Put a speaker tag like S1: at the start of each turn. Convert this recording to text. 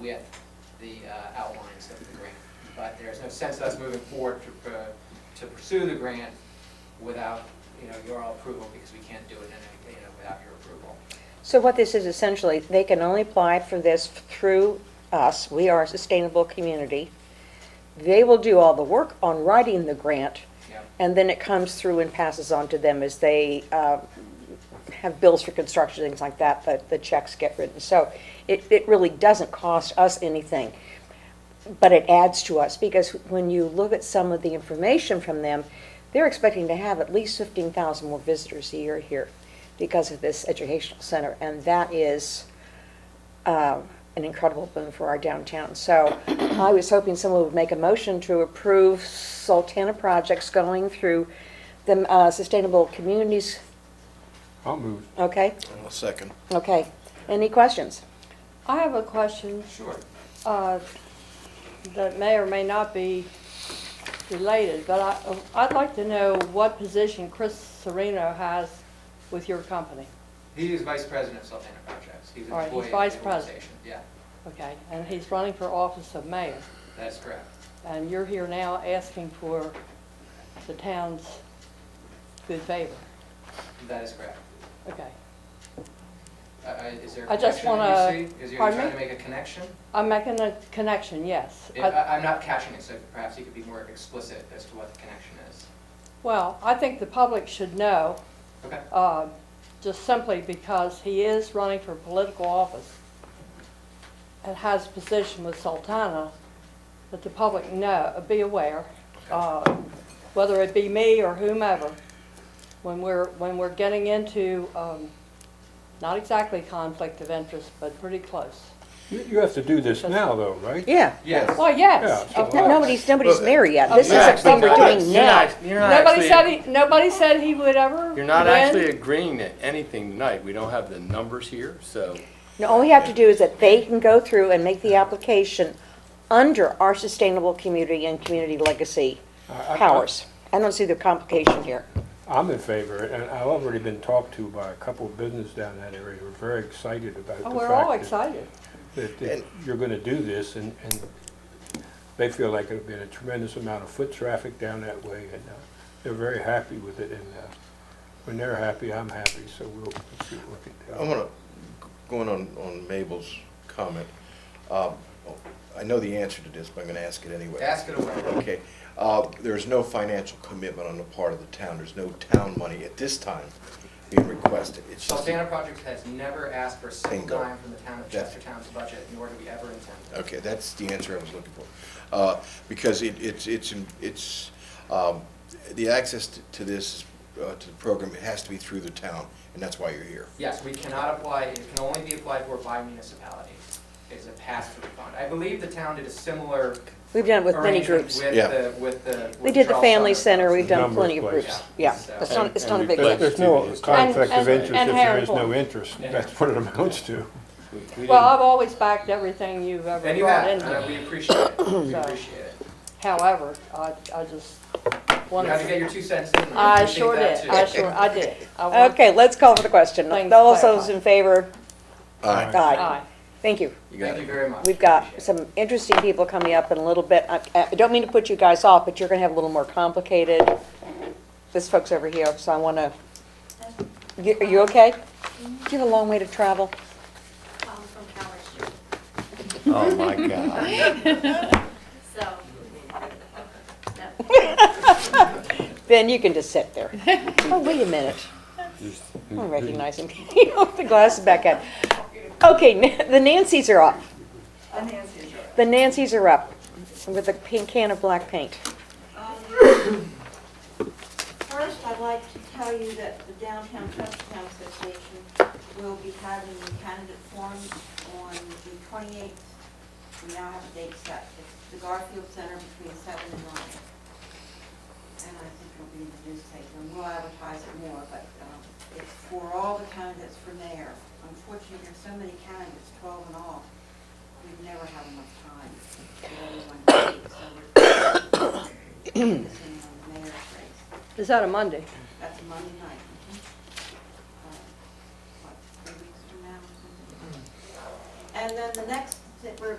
S1: with the uh, outlines of the grant. But there's no sense us moving forward to, uh, to pursue the grant without, you know, your all approval, because we can't do it in, a- you know, without your approval.
S2: So what this is essentially, they can only apply for this through us, we are a sustainable community. They will do all the work on writing the grant,
S1: Yeah,
S2: and then it comes through and passes on to them as they uh, have bills for construction, things like that, the, the checks get written. So it, it really doesn't cost us anything, but it adds to us, because when you look at some of the information from them, they're expecting to have at least fifteen thousand more visitors a year here because of this educational center, and that is uh, an incredible boon for our downtown. So I was hoping someone would make a motion to approve Sultana projects going through the uh, Sustainable Communities,
S3: I'll move.
S2: okay?
S4: I'll second.
S2: Okay. Any questions?
S5: I have a question
S1: sure.
S5: uh, that may or may not be related, but I- I'd like to know what position Chris Sereno has with your company,
S1: He is vice president of Sultana Projects. He's an
S5: All right,
S1: employee
S5: he's
S1: of the
S5: vice president.
S1: organization. Yeah,
S5: okay? And he's running for office of mayor,
S1: that is correct.
S5: and you're here now asking for the town's good favor,
S1: That is correct.
S5: okay?
S1: Uh, uh, Is there a
S5: I just
S1: connection that
S5: wanna-
S1: you see? Is you
S5: pardon
S1: trying to
S5: me?
S1: make a connection?
S5: I'm making a connection, yes.
S1: Yeah, I- I'm not catching it, so perhaps you could be more explicit as to what the connection is.
S5: Well, I think the public should know
S1: Okay,
S5: uh, just simply because he is running for political office and has a position with Sultana, that the public know, be aware, uh, whether it be me or whomever, when we're, when we're getting into, um, not exactly conflict of interest, but pretty close.
S3: You you have to do this now, though, right?
S2: Yeah.
S1: yes.
S5: Well, yes,
S3: Yeah,
S5: of
S3: sure.
S2: No-
S5: course.
S2: Nobody's, nobody's mayor yet. This is
S5: Yeah,
S2: a thing we're
S5: but
S2: doing now.
S5: Nobody said he, nobody said he would ever
S6: You're not
S5: win.
S6: actually agreeing to anything tonight. We don't have the numbers here, so.
S2: No, All we have to do is that they can go through and make the application under our Sustainable Community and Community Legacy
S3: I- I-
S2: powers. I don't see the complication here.
S3: I'm in favor, and I've already been talked to by a couple of business down that area. We're very excited about the
S5: Oh,
S3: fact.
S5: We're all
S3: that-
S5: excited.
S3: That that you're going to do this, and, and they feel like there'll be a tremendous amount of foot traffic down that way, and uh, they're very happy with it, and uh, when they're happy, I'm happy, so we'll we'll see what we
S4: I
S3: can do.
S4: want to, going on, on Mabel's comment, uh, I know the answer to this, but I'm going to ask it anyway.
S1: Ask it away.
S4: Okay, uh, there's no financial commitment on the part of the town, there's no town money at this time being requested. It's just,
S1: Sultana Projects has never asked for a single
S4: Bingo.
S1: dime from the town of
S4: That's-
S1: Chestertown's budget, nor do we ever intend to.
S4: okay, that's the answer I was looking for. Uh, Because it, it's, it's, it's, um, the access to- to this, uh, to the program, it has to be through the town, and that's why you're here.
S1: Yes, we cannot apply, it can only be applied for by municipality. It's a pass-through fund. I believe the town did a similar
S2: We've done it with many
S1: arrangement
S2: groups.
S1: with
S4: Yeah.
S1: the, with the.
S2: We did the family center,
S1: We
S2: we've done
S3: Number
S2: plenty
S3: of
S2: of
S3: places.
S2: groups. Yeah,
S1: So-
S2: it's not, it's not a big
S6: And-
S2: one.
S3: There's there's no
S6: And-
S3: conflict of
S5: and-
S3: interest if
S5: and
S3: there is no
S5: Harrisburg.
S3: interest. That's what it amounts to.
S6: we- we
S5: Well,
S6: didn't-
S5: I've always backed everything you've ever
S1: And you
S5: brought
S1: have,
S5: in
S1: and
S5: here.
S1: we appreciate it, we
S5: So-
S1: appreciate it.
S5: However, I, I just
S1: You had to
S5: wanted,
S1: get your two cents in. We
S5: I
S1: appreciate
S5: sure
S1: that
S5: did,
S1: too.
S5: I sure, I did. I want-
S2: Okay, let's call for the question.
S5: Things
S2: All those in
S5: clarified.
S2: favor?
S4: Aye.
S2: Aye.
S5: Aye.
S2: Thank you.
S6: You got
S1: Thank you
S6: it.
S1: very much.
S2: We've got
S1: Appreciate it.
S2: some interesting people coming up in a little bit. I I don't mean to put you guys off, but you're going to have a little more complicated, this folks over here, so I want to, you- are you okay? Do you have a long way to travel?
S7: um, from Calvert Street,
S6: Oh, my God.
S7: so. no.
S2: Ben, you can just sit there. Oh, wait a minute. I don't recognize him. He put the glasses back on. Okay, Na- the Nancy's are up. The Nancy's are up with a pink can of black paint.
S8: Um, First, I'd like to tell you that the Downtown Chestertown Association will be having the candidate forum on the 28th. We now have a date set. It's the Garfield Center between seven and nine. And I think it'll be in the newspaper, and we'll advertise it more, but um, it's for all the candidates for mayor. Unfortunately, there's so many candidates, 12 in all. We've never had enough time to get everyone to speak, so we're focusing on the mayor's race.
S5: Is that a Monday?
S8: That's a Monday night. mhm. Uh, What, three weeks from now or something? And then the next, we're